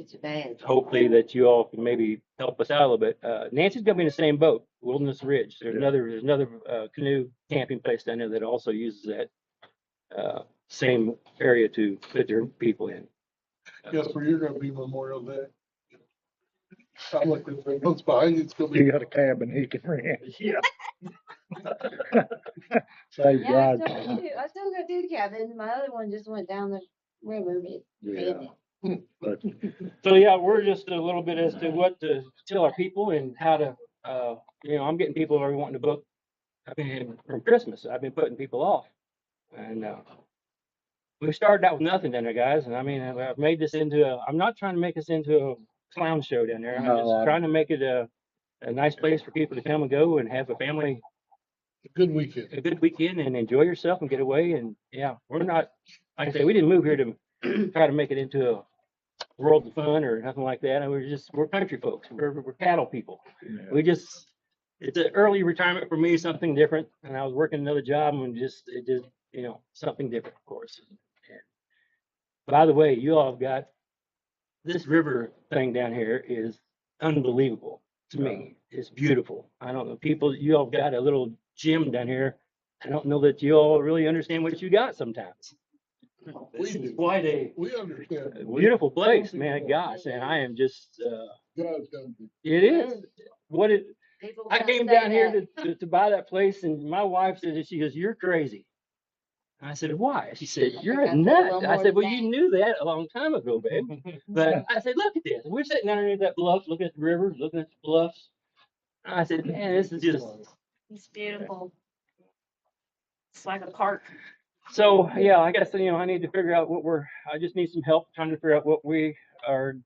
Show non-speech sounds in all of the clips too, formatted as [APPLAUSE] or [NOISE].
It's bad. hopefully that you all can maybe help us out a little bit. Uh, Nancy's gonna be in the same boat, Wilderness Ridge. There's Yeah. another, there's another, uh, canoe camping place down there that also uses that, uh, same area to put their people in. Yes, where you're gonna be Memorial Day. I looked at the ones behind you, it's gonna He be. got a cabin he can [LAUGHS] rent. Yeah. [LAUGHS] Save Yeah, I drive. still got two, I still got two cabins. My other one just went down the river. It- Yeah, [LAUGHS] but So, yeah, we're just a little bit as to what to tell our people and how to, uh, you know, I'm getting people who are wanting to book. I mean, from Christmas, I've been putting people off and, uh, we started out with nothing down there, guys. And I mean, I've I've made this into a, I'm not trying to make this into a clown show down there. I'm No, just I- trying to make it a, a nice place for people to come and go and have a family, Good weekend. a good weekend and enjoy yourself and get away. And yeah, we're not, like I say, we didn't move here to try to make it into a world of fun or nothing like that. And we're just, we're country folks. We're, we're cattle people. yeah, We just, it's an early retirement for me, something different. And I was working another job and just, it just, you know, something different, of course. By the way, you all have got, this river thing down here is unbelievable to me. It's beautiful. I don't know, people, you all have got a little gym down here. I don't know that you all really understand what you got sometimes. This We is do. quite a We understand. beautiful place, man, gosh, and I am just, uh, God's done it it. is. What it, People I come came say down that. here to, to, to buy that place and my wife said, that she goes, you're crazy. And I said, why? She said, you're think a I said nut. one I more said, well, you thing." knew that a long [LAUGHS] time ago, babe. But I said, look at this. We're sitting down underneath that bluff, looking at the river, looking at the bluffs. I said, man, this is just, It's beautiful. It's like a park. so, yeah, I guess, you know, I need to figure out what we're, I just need some help trying to figure out what we are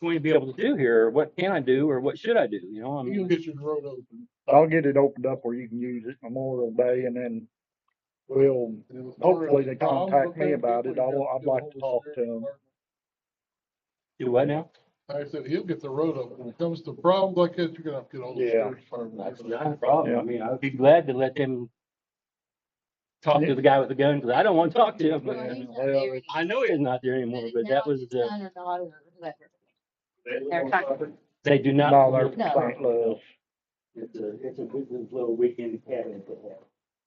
going to be able to do here, or what can I do, or what should I do, you know? I You mean, get your road open. I'll get it opened up where you can use it Memorial Day and then we'll, hopefully they contact me about it. I'll, I'd like to talk to them. do what now? I said, he'll get the road open. When it comes to problems like that, you're gonna have to get all the Yeah. sheriff's department. That's not a problem. I mean, I'd be glad to let them talk to the guy with the gun, because I don't want to talk to Well, Yeah, he's him. not well, there it- I know he's not there anymore, anymore, but but now that was his the, son or daughter or whoever. They're talking- they do not. No, they're No. from St. Louis. It's a, it's a good little weekend cabin they have.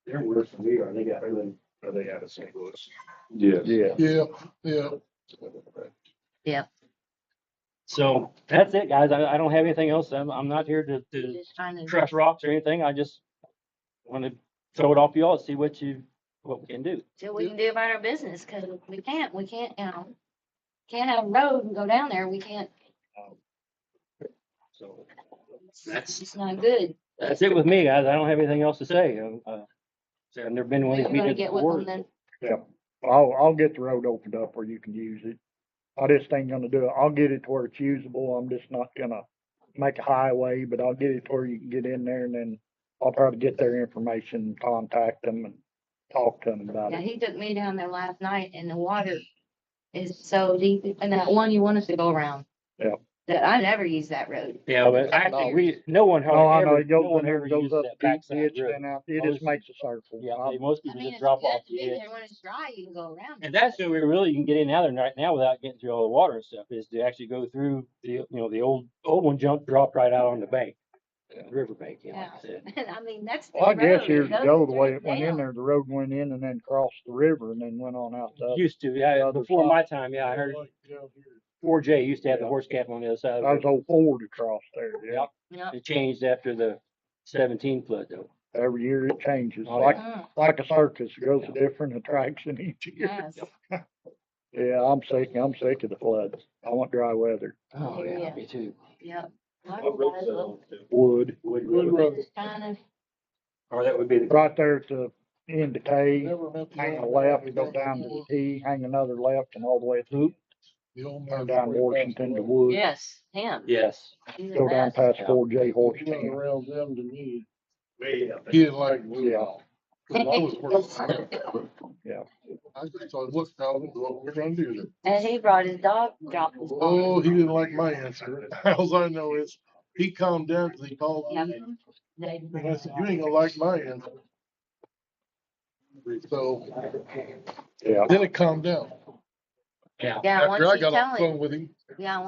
They're worse than we are. They got really. Are they out of St. Louis? Yeah, Yeah, yeah. So that's it, guys. I, I don't have anything else. I'm, I'm not here to, to Just trying to. crush rocks or anything. I just want to throw it off to y'all, see what you, what we can do. See what we can do about our business, cause we can't, we can't, you know, can't have a road and go down there. We can't, So it's That's- just not good. that's it with me, guys. I don't have anything else to say. Um, uh, so I've never been to one You're of these gonna meetings get with them before. then. I'll, I'll get the road opened up where you can use it. I just ain't gonna do it. I'll get it to where it's usable. I'm just not gonna make a highway, but I'll get it to where you can get in there and then I'll try to get their information, contact them and talk to them about Yeah, it. he took me down there last night and the water is so deep, and that one you want us to go around. Yep. That I never use that road. Yeah, but I No. think we, no one Oh, I know, ever, it no goes, one in there, ever it goes uses up that deep backside ditch road. and out, it Always- just makes a circle. Yeah, I- they- most I people mean, just it's drop good off to the be edge. there When it's dry, you can go around. And it. that's the way really you can get in and out of there right now without getting through all the water and stuff is to actually go through the, you know, the old, old one jump, drop right out on the bank. the River bank, you know, like I said. [LAUGHS] And I mean, that's. the Well, I guess road. years Those ago, are the way it straight went in down. there, the road went in and then crossed the river and then went on out the other. Used to, yeah, other before side. my time, yeah, I heard Like down here. four J used to have the Yeah. horse cap on the other side. That of was old Ford across there, yeah. Yep. It It changed after the seventeen flood though. Every year it changes, Oh, like, [LAUGHS] Mm, like a circus, it goes a different attraction [LAUGHS] each year. Yes. Yeah, I'm sick, I'm sick of the floods. I want dry weather. Oh, yeah. Me too. Yep. Wood. Wood Wood Road, road. Just kind of, or that would be the. Right there at the end of K, Never meant to- hang a left, go down to the T, hang another left and all the way through, The old man. turn down Washington to Wood. yes, him. Yes. he's the Go down best. past Yeah. four J horse He went town. around them to me. Way up He didn't like. me. Yeah, I was working. Yeah. I just thought, look, Al, this is what we're gonna do then. And he brought his dog, dropped his Oh, ball. he didn't like my answer. [LAUGHS] Alls I know is, he calmed down because he called Yep. me. [LAUGHS] They- And I said, you ain't gonna like my answer. So yeah. then it calmed down. Yeah. Yeah, once After I you got tell off the phone him, with him. yeah,